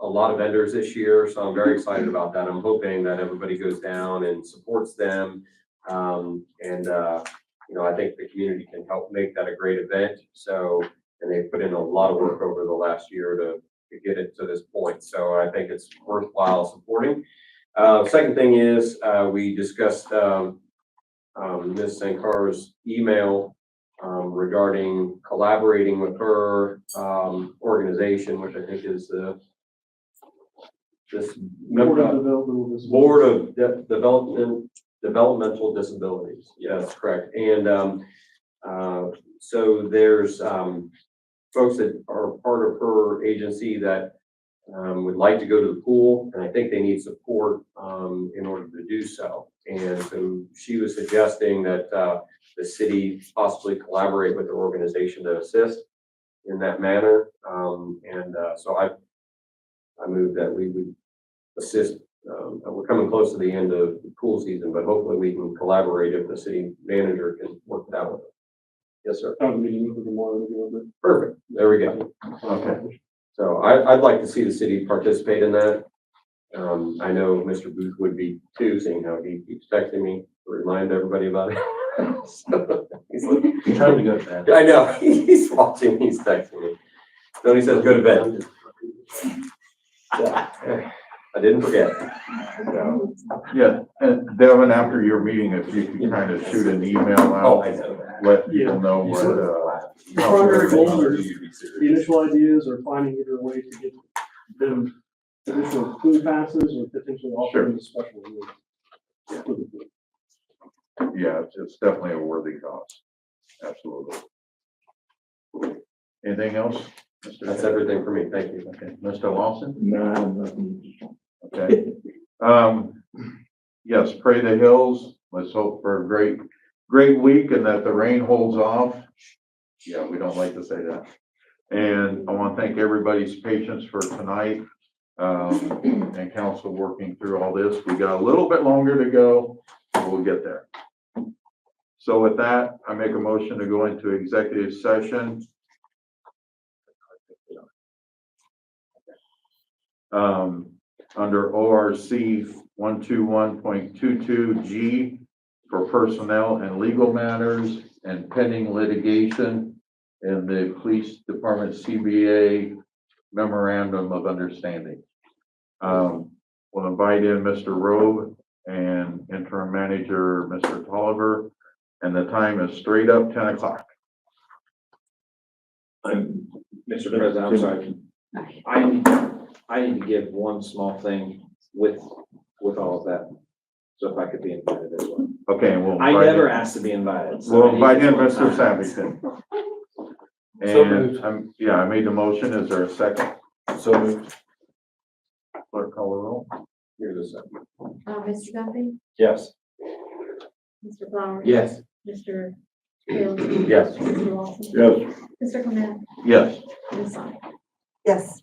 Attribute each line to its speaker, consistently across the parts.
Speaker 1: a lot of vendors this year, so I'm very excited about that. I'm hoping that everybody goes down and supports them. Um, and, uh, you know, I think the community can help make that a great event. So, and they've put in a lot of work over the last year to, to get it to this point. So I think it's worthwhile supporting. Uh, second thing is, uh, we discussed, um, um, Ms. Sankar's email, um, regarding collaborating with her, um, organization, which I think is the this
Speaker 2: Board
Speaker 1: member,
Speaker 2: of Developmental Disabilities.
Speaker 1: Board of De- Development, Developmental Disabilities. Yes, correct. And, um, uh, so there's, um, folks that are part of her agency that, um, would like to go to the pool, and I think they need support, um, in order to do so. And so she was suggesting that, uh, the city possibly collaborate with the organization to assist in that manner. Um, and, uh, so I, I move that we would assist um, we're coming close to the end of the pool season, but hopefully we can collaborate if the city manager can work that with us. Yes, sir.
Speaker 2: I have a meeting with them tomorrow to go over. it.
Speaker 1: Perfect. There we go.
Speaker 2: Okay.
Speaker 1: So I, I'd like to see the city participate in that. Um, I know Mr. Booth would be too, seeing how he keeps texting me to remind everybody about it. So, he's like,
Speaker 3: Time to go to bed.
Speaker 1: I know, he's watching, he's texting me. Then he says, go to bed. I didn't forget. So,
Speaker 4: Yeah, and Devin, after your meeting, if you could kind of shoot an email
Speaker 1: Oh,
Speaker 4: out,
Speaker 1: I know that.
Speaker 4: let people know
Speaker 2: Yeah.
Speaker 4: what, uh.
Speaker 2: Primary goal is the initial ideas or finding either way to get them additional food passes or potentially offering a special. reward.
Speaker 4: Yeah, it's, it's definitely a worthy cause, absolutely. Anything else? Mr.
Speaker 1: That's
Speaker 4: Taylor?
Speaker 1: everything for me. Thank you.
Speaker 4: Okay, Mr. Lawson?
Speaker 3: No, nothing.
Speaker 4: Okay. Um, yes, pray the hills. Let's hope for a great, great week and that the rain holds off. Yeah, we don't like to say that. And I want to thank everybody's patience for tonight. Um, and council working through all this. We got a little bit longer to go, but we'll get there. So with that, I make a motion to go into executive session. Um, under ORC one two one point two two G for personnel and legal matters and pending litigation and the police department CBA memorandum of understanding. Um, we'll invite in Mr. Robe and interim manager, Mr. Tolliver, and the time is straight up ten o'clock.
Speaker 3: I'm, Mr. President, I'm sorry. I, I need to give one small thing with, with all of that. So if I could be invited as well.
Speaker 4: Okay, and we'll.
Speaker 3: I
Speaker 4: invite in-
Speaker 3: never asked to be invited. so I
Speaker 4: We'll
Speaker 3: need
Speaker 4: invite in
Speaker 3: to-
Speaker 4: Mr. Savington.
Speaker 3: So
Speaker 4: And, I'm- yeah, I made the motion. Is there a second?
Speaker 3: So moved.
Speaker 4: Clerk call the roll.
Speaker 1: Here's a second.
Speaker 5: Uh, Mr. Duffy,
Speaker 3: Yes.
Speaker 5: Mr. Flowers.
Speaker 1: Yes.
Speaker 5: Mr. Taylor.
Speaker 1: Yes.
Speaker 5: Mr. Lawson.
Speaker 4: Yes.
Speaker 5: Mr. Clement,
Speaker 4: Yes.
Speaker 5: Ms. Sonic.
Speaker 6: Yes.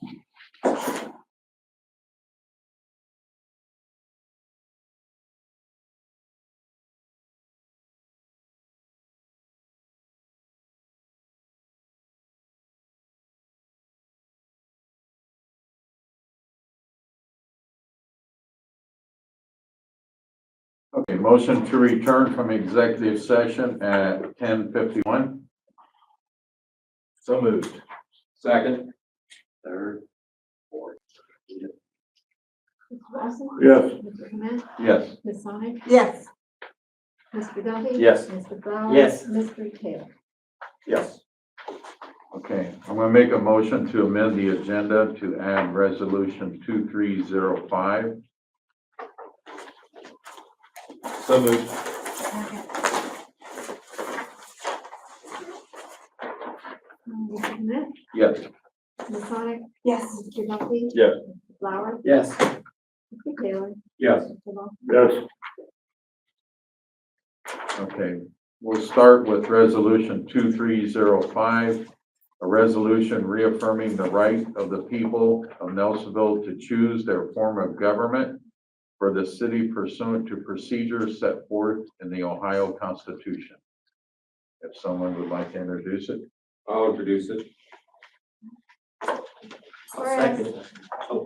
Speaker 4: Okay, motion to return from executive session at ten fifty-one.
Speaker 3: So moved.
Speaker 1: Second. Third. Fourth.
Speaker 5: Mr. Lawson.
Speaker 4: Yes.
Speaker 5: Mr. Clement,
Speaker 4: Yes.
Speaker 5: Ms. Sonic,
Speaker 6: Yes.
Speaker 5: Mr. Duffy.
Speaker 1: Yes.
Speaker 5: Mr. Flowers.
Speaker 3: Yes.
Speaker 5: Mr. Taylor.
Speaker 1: Yes.
Speaker 4: Okay, I'm gonna make a motion to amend the agenda to add resolution two three zero five.
Speaker 3: So moved.
Speaker 5: Um, Mr. Clement,
Speaker 4: Yes.
Speaker 5: Ms. Sonic,
Speaker 6: Yes.
Speaker 5: Mr. Duffy.
Speaker 3: Yes.
Speaker 5: Mr. Flowers,
Speaker 1: Yes.
Speaker 5: Mr. Taylor.
Speaker 1: Yes.
Speaker 5: Mr. Lawson.
Speaker 4: Yes. Okay, we'll start with resolution two three zero five. A resolution reaffirming the right of the people of Nelsonville to choose their form of government for the city pursuant to procedures set forth in the Ohio Constitution. If someone would like to introduce it,
Speaker 1: I'll introduce it.
Speaker 5: Whereas